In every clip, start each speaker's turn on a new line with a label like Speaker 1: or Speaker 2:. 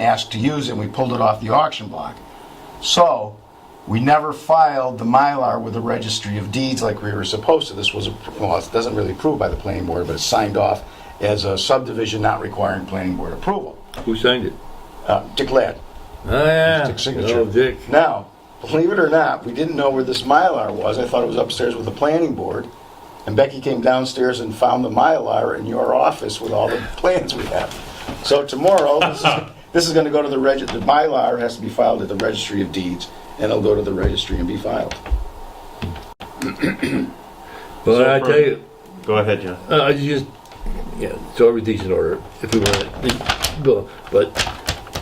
Speaker 1: asked to use it, and we pulled it off the auction block. So, we never filed the Mylar with the Registry of Deeds like we were supposed to. This was, a- well, it doesn't really approve by the planning board, but it's signed off as a subdivision not requiring planning board approval.
Speaker 2: Who signed it?
Speaker 1: Uh, Dick Ladd.
Speaker 2: Oh, yeah.
Speaker 1: Dick's signature.
Speaker 2: Oh, Dick.
Speaker 1: Now, believe it or not, we didn't know where this Mylar was. I thought it was upstairs with the planning board. And Becky came downstairs and found the Mylar in your office with all the plans we have. So tomorrow, this is, this is gonna go to the reg, the Mylar has to be filed at the registry of deeds, and it'll go to the registry and be filed.
Speaker 2: But
Speaker 3: So
Speaker 2: I
Speaker 3: for-
Speaker 2: tell you,
Speaker 3: Go ahead, John.
Speaker 2: uh, I just, yeah, so everything's in order if we want it. Well, But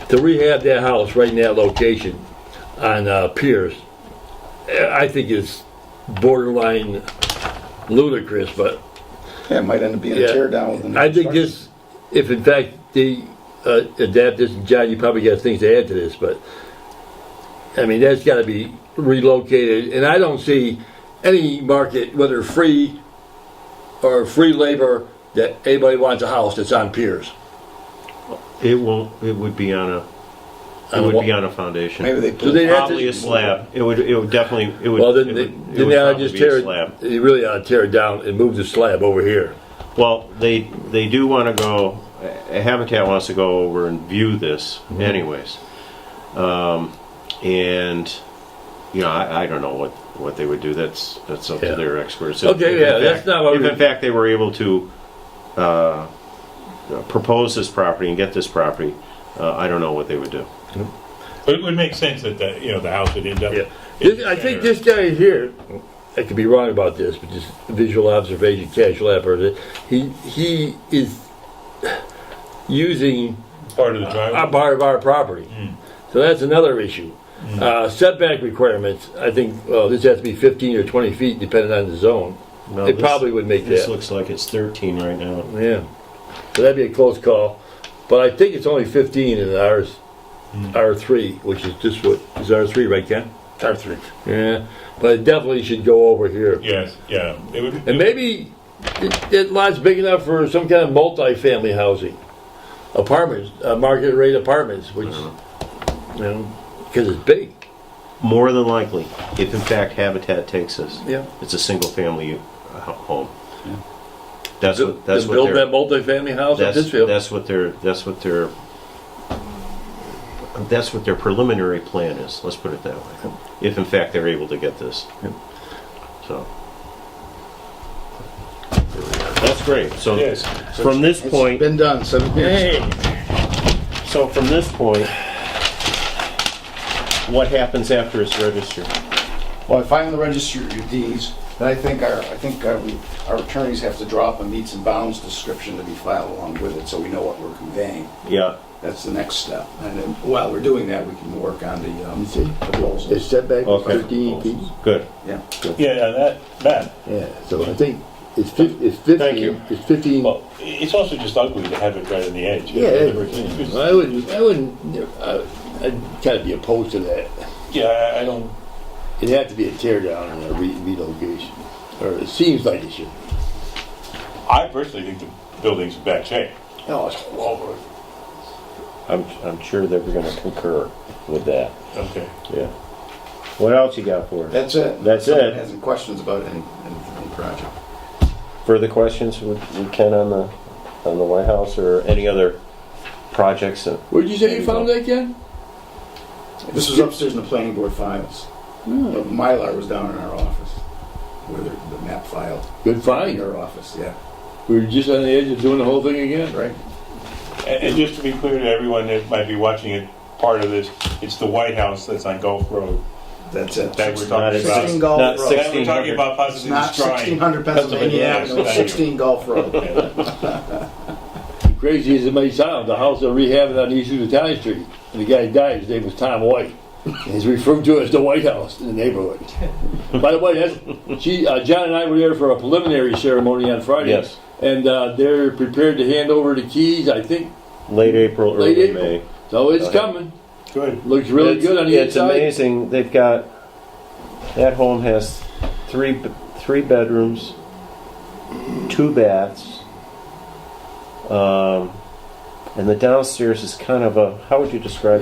Speaker 2: to rehab that house right in that location on uh, Pierce, eh, I think is borderline ludicrous, but
Speaker 1: Yeah, it might end up being a
Speaker 2: Yeah.
Speaker 1: tear down with the new
Speaker 2: I think
Speaker 1: construction.
Speaker 2: this, if in fact they uh, adapt this, and John, you probably got things to add to this, but I mean, that's got to be relocated, and I don't see any market, whether free or free labor, that anybody wants a house that's on piers.
Speaker 3: It won't, it would be on a,
Speaker 2: On
Speaker 3: it
Speaker 2: a
Speaker 3: would
Speaker 2: what?
Speaker 3: be on a foundation.
Speaker 1: Maybe they
Speaker 2: So
Speaker 1: put,
Speaker 2: they- They'd have
Speaker 3: Probably
Speaker 2: to-
Speaker 3: a slab. It would, it would definitely, it would.
Speaker 2: Well, then,
Speaker 3: it
Speaker 2: they-
Speaker 3: would- it
Speaker 2: then
Speaker 3: would
Speaker 2: they ought to
Speaker 3: probably
Speaker 2: just
Speaker 3: be a
Speaker 2: tear
Speaker 3: slab.
Speaker 2: it, they really ought to tear it down and move the slab over here.
Speaker 3: Well, they, they do want to go, uh, Habitat wants to go over and view this
Speaker 2: Mm-hmm.
Speaker 3: anyways. Um, And, you know, I, I don't know what, what they would do. That's, that's up
Speaker 2: Yeah.
Speaker 3: to their experts.
Speaker 2: Okay,
Speaker 3: If in
Speaker 2: yeah, that's
Speaker 3: fact-
Speaker 2: not what
Speaker 3: If
Speaker 2: we-
Speaker 3: in fact they were able to uh, propose this property and get this property, uh, I don't know what they would do.
Speaker 4: But it would make sense that the, you know, the house would end up.
Speaker 2: Yeah,
Speaker 4: in
Speaker 2: This-
Speaker 4: the
Speaker 2: I think
Speaker 4: center.
Speaker 2: this guy here, I could be wrong about this, but just visual observation, casual effort, he, he is using
Speaker 4: Part of the
Speaker 2: a
Speaker 4: driveway.
Speaker 2: part of our property. So that's another issue. Uh, setback requirements, I think, well, this has to be fifteen or twenty feet depending on the zone.
Speaker 3: No,
Speaker 2: It
Speaker 3: this-
Speaker 2: probably would make
Speaker 3: This
Speaker 2: that,
Speaker 3: looks like it's 13 right now.
Speaker 2: yeah. So that'd be a close call, but I think it's only fifteen in ours,
Speaker 3: Hmm.
Speaker 2: R three, which is just what, is R three right, Ken?
Speaker 1: tear through.
Speaker 2: Yeah, but it definitely should go over here.
Speaker 4: Yes, yeah. It would,
Speaker 2: And maybe it, it lot's big enough for some kind of multi-family housing, apartments, uh, market rate apartments, which, you
Speaker 3: Uh-huh.
Speaker 2: know, because it's big.
Speaker 3: More than likely, if in fact Habitat takes this,
Speaker 2: Yeah.
Speaker 3: it's a single-family uh, home. That's
Speaker 2: To
Speaker 3: what, that's what
Speaker 2: build
Speaker 3: they're,
Speaker 2: that multi-family house in
Speaker 3: that's,
Speaker 2: Pittsfield.
Speaker 3: that's what their, that's what their, that's what their preliminary plan is, let's put it that way. If in fact they're able to get this.
Speaker 2: Yep.
Speaker 3: So. That's great, so
Speaker 4: Yes.
Speaker 3: from this
Speaker 1: It's
Speaker 3: point,
Speaker 1: been done, seven years.
Speaker 3: so from this point, what happens after it's registered?
Speaker 1: Well, I find the registry of deeds, then I think our, I think our, we- our attorneys have to draw up a meets and bounds description to be filed along with it, so we know what we're conveying.
Speaker 3: Yeah.
Speaker 1: That's the next step. And then while we're doing that, we can work on the, um, the goals.
Speaker 2: It's setback is
Speaker 3: Okay.
Speaker 2: fifteen feet.
Speaker 3: Good.
Speaker 1: Yeah.
Speaker 4: yeah, yeah, that, that.
Speaker 2: Yeah, so I think it's fif- it's fifteen,
Speaker 3: you.
Speaker 2: it's fifteen.
Speaker 4: Well, it's also just ugly to have it right on the edge.
Speaker 2: Yeah,
Speaker 4: It's-
Speaker 2: it-
Speaker 4: it's-
Speaker 2: I wouldn't, I wouldn't, I- I'd kind of be opposed to that.
Speaker 4: yeah, I- I don't,
Speaker 2: It'd have to be a tear down and a re- relocation, or it seems like it should.
Speaker 4: I personally think the building's in bad shape.
Speaker 2: No, it's all over.
Speaker 3: I'm, I'm sure that we're gonna concur with that,
Speaker 4: Okay.
Speaker 3: yeah. What else you got for us?
Speaker 1: That's it.
Speaker 3: That's
Speaker 1: Someone
Speaker 3: it.
Speaker 1: Has any questions about any, any any project?
Speaker 3: Further questions with, with Ken on the, on the White House or any other projects? that-
Speaker 2: Where'd you say you found that, Ken?
Speaker 1: This was upstairs in the planning board files.
Speaker 2: Hmm.
Speaker 1: But Mylar was down in our office, where the the map filed,
Speaker 2: Good
Speaker 1: in
Speaker 2: find.
Speaker 1: our office, yeah.
Speaker 2: We were just on the edge of doing the whole thing again.
Speaker 1: Right?
Speaker 4: And, and just to be clear to everyone that might be watching it, part of this, it's the White House that's on Gulf Road.
Speaker 1: That's it.
Speaker 4: That we're
Speaker 3: Not
Speaker 4: talking
Speaker 3: as-
Speaker 4: about.
Speaker 1: 16 Gulf
Speaker 3: not
Speaker 1: Road.
Speaker 4: That we're
Speaker 3: 1600.
Speaker 4: talking about
Speaker 1: It's
Speaker 4: possibly
Speaker 1: not sixteen
Speaker 4: destroying.
Speaker 1: hundred Pennsylvania
Speaker 4: Pennsylvania
Speaker 1: Avenue,
Speaker 4: Avenue.
Speaker 1: sixteen Gulf Road.
Speaker 2: Crazy as it may sound, the house they're rehabbing on East Italian Street, and the guy who died, his name was Tom White. And he's referred to as the White House in the neighborhood. By the way, that's, she, uh, John and I were there for a preliminary ceremony on Friday.
Speaker 3: Yes.
Speaker 2: And uh, they're prepared to hand over the keys, I think.
Speaker 3: Late April,
Speaker 2: Late
Speaker 3: early
Speaker 2: April.
Speaker 3: May.
Speaker 2: So it's
Speaker 3: Okay.
Speaker 2: coming.
Speaker 4: Good.
Speaker 2: Looks really
Speaker 3: It's-
Speaker 2: good on the
Speaker 3: It's
Speaker 2: inside.
Speaker 3: amazing, they've got, that home has three, b- three bedrooms, two baths, um, and the downstairs is kind of a, how would you describe